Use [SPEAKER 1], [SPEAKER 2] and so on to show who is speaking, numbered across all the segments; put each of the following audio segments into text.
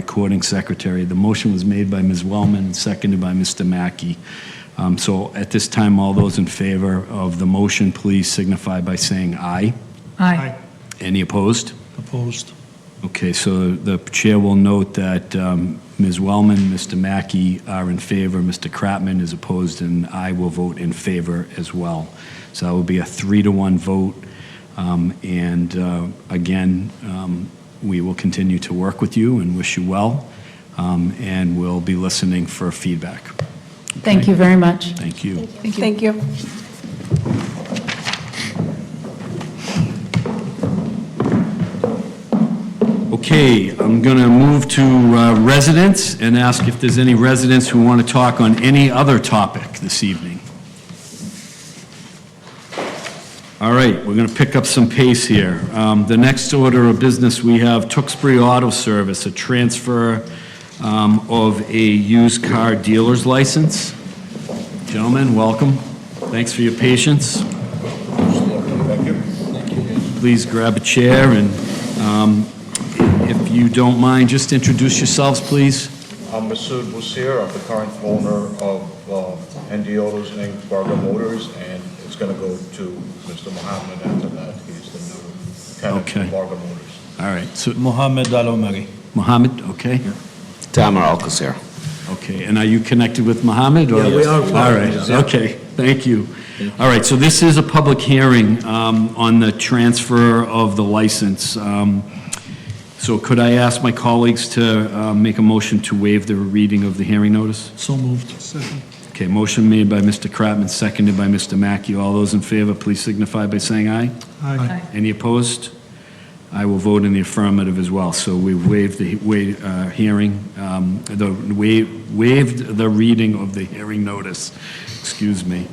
[SPEAKER 1] recording secretary. The motion was made by Ms. Wellman and seconded by Mr. Mackey. Um, So at this time, all those in favor of the motion, please signify by saying aye.
[SPEAKER 2] Aye.
[SPEAKER 1] Any opposed?
[SPEAKER 3] Opposed.
[SPEAKER 1] Okay, so the chair will note that um, Ms. Wellman, Mr. Mackey are in favor, Mr. Kratman is opposed, and I will vote in favor as well. So that will be a three-to-one vote. Um, And uh, again, um, we will continue to work with you and wish you well, um, and we'll be listening for feedback.
[SPEAKER 2] Thank you very much.
[SPEAKER 1] Thank you.
[SPEAKER 4] Thank you.
[SPEAKER 1] Okay, I'm going to move to uh, residents and ask if there's any residents who want to talk on any other topic this evening. All right, we're going to pick up some pace here. Um, The next order of business, we have Tewksbury Auto Service, a transfer um, of a used car dealer's license. Gentlemen, welcome. Thanks for your patience. Please grab a chair and um, if you don't mind, just introduce yourselves, please.
[SPEAKER 5] I'm Masood Bussier, I'm the current owner of uh, ND Autos Inc., Barker Motors, and it's going to go to Mr. Mohammed after that. He's the new tenant
[SPEAKER 1] Okay.
[SPEAKER 5] of Barker Motors.
[SPEAKER 1] All right, so
[SPEAKER 3] Mohammed Al Omari.
[SPEAKER 1] Mohammed, okay?
[SPEAKER 6] Tamer Alcocer.
[SPEAKER 1] Okay, and are you connected with Mohammed? or-
[SPEAKER 3] Yeah, we are
[SPEAKER 1] All right,
[SPEAKER 3] Mohammedans, yeah.
[SPEAKER 1] okay, thank you. All right, so this is a public hearing um, on the transfer of the license. Um, So could I ask my colleagues to uh, make a motion to waive the reading of the hearing notice?
[SPEAKER 3] So moved. Second.
[SPEAKER 1] Okay, motion made by Mr. Kratman, seconded by Mr. Mackey. All those in favor, please signify by saying aye.
[SPEAKER 3] Aye.
[SPEAKER 1] Any opposed? I will vote in the affirmative as well. So we waived the wa- uh, hearing, um, the wa- waived the reading of the hearing notice, excuse me.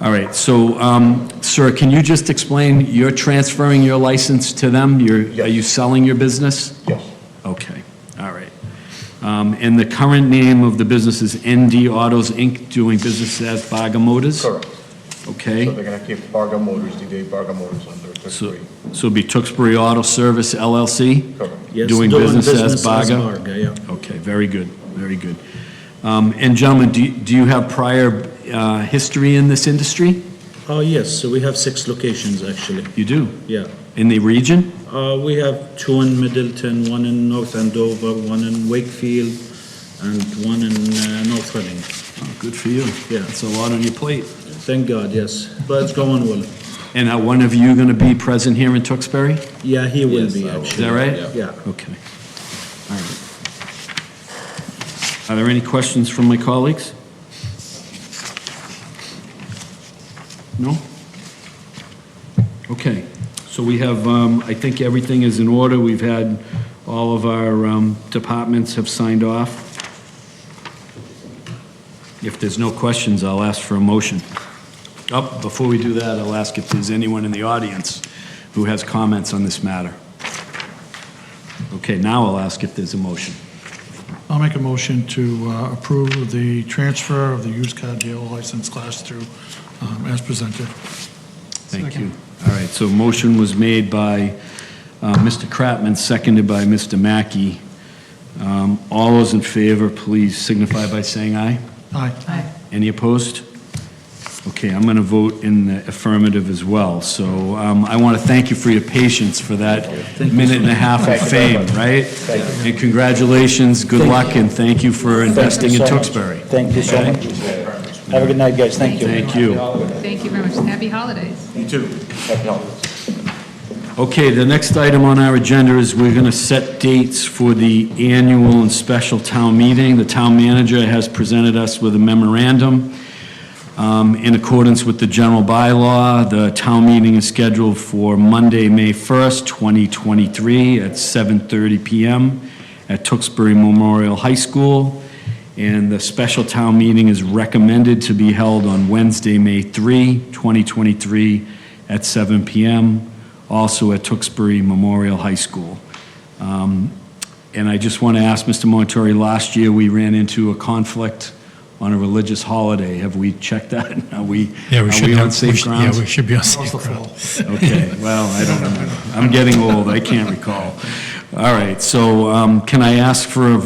[SPEAKER 1] All right, so, um, sir, can you just explain, you're transferring your license to them? You're, are you selling your business?
[SPEAKER 5] Yes,
[SPEAKER 1] Okay, all right. Um, And the current name of the business is ND Autos, Inc., doing business as Baga Motors?
[SPEAKER 5] correct.
[SPEAKER 1] Okay.
[SPEAKER 5] So they're going to keep Barker Motors, D.D. Barker Motors under
[SPEAKER 1] So
[SPEAKER 5] 33.
[SPEAKER 1] so it'd be Tewksbury Auto Service LLC?
[SPEAKER 5] Correct.
[SPEAKER 1] Yes, Doing business as Baga?
[SPEAKER 3] yeah.
[SPEAKER 1] Okay, very good, very good. Um, And gentlemen, do you- do you have prior uh, history in this industry?
[SPEAKER 7] Oh, yes, so we have six locations, actually,
[SPEAKER 1] You do?
[SPEAKER 7] yeah.
[SPEAKER 1] In the region?
[SPEAKER 7] Uh, We have two in Middleton, one in North Andover, one in Wakefield, and one in uh, North Reading.
[SPEAKER 1] Oh, Good for you.
[SPEAKER 7] Yeah.
[SPEAKER 1] That's a lot on your plate.
[SPEAKER 7] Thank God, yes, but it's going well.
[SPEAKER 1] And are one of you going to be present here in Tewksbury?
[SPEAKER 7] Yeah, he will be,
[SPEAKER 6] I will.
[SPEAKER 1] Is that
[SPEAKER 7] actually.
[SPEAKER 1] right?
[SPEAKER 7] Yeah.
[SPEAKER 1] Okay. All right. Are there any questions from my colleagues? No? Okay. So we have, um, I think everything is in order. We've had, all of our um, departments have signed off. If there's no questions, I'll ask for a motion. Oh, before we do that, I'll ask if there's anyone in the audience who has comments on this matter. Okay, now I'll ask if there's a motion.
[SPEAKER 3] I'll make a motion to uh, approve the transfer of the used car dealer license class through um, as presented.
[SPEAKER 1] Thank you.
[SPEAKER 3] Second.
[SPEAKER 1] All right, so motion was made by uh, Mr. Kratman, seconded by Mr. Mackey. Um, All those in favor, please signify by saying aye.
[SPEAKER 3] Aye.
[SPEAKER 1] Any opposed? Okay, I'm going to vote in the affirmative as well. So um, I want to thank you for your patience for that minute and a half of fame, right? And congratulations, good luck, and thank you for investing in Tewksbury.
[SPEAKER 8] Thank you so much. Have a good night, guys. Thank you.
[SPEAKER 1] Thank you.
[SPEAKER 9] Thank you very much. Happy holidays.
[SPEAKER 5] You too. Happy holidays.
[SPEAKER 1] Okay, the next item on our agenda is we're going to set dates for the annual and special town meeting. The town manager has presented us with a memorandum. Um, In accordance with the general bylaw, the town meeting is scheduled for Monday, May 1st, 2023, at 7:30 PM at Tewksbury Memorial High School. And the special town meeting is recommended to be held on Wednesday, May 3, 2023, at 7 PM, also at Tewksbury Memorial High School. Um, And I just want to ask Mr. Montori, last year, we ran into a conflict on a religious holiday. Have we checked that? Are we, are we on safe grounds?
[SPEAKER 3] should be on safe grounds.
[SPEAKER 1] Okay, well, I don't know. I'm getting old, I can't recall. All right, so um, can I ask for a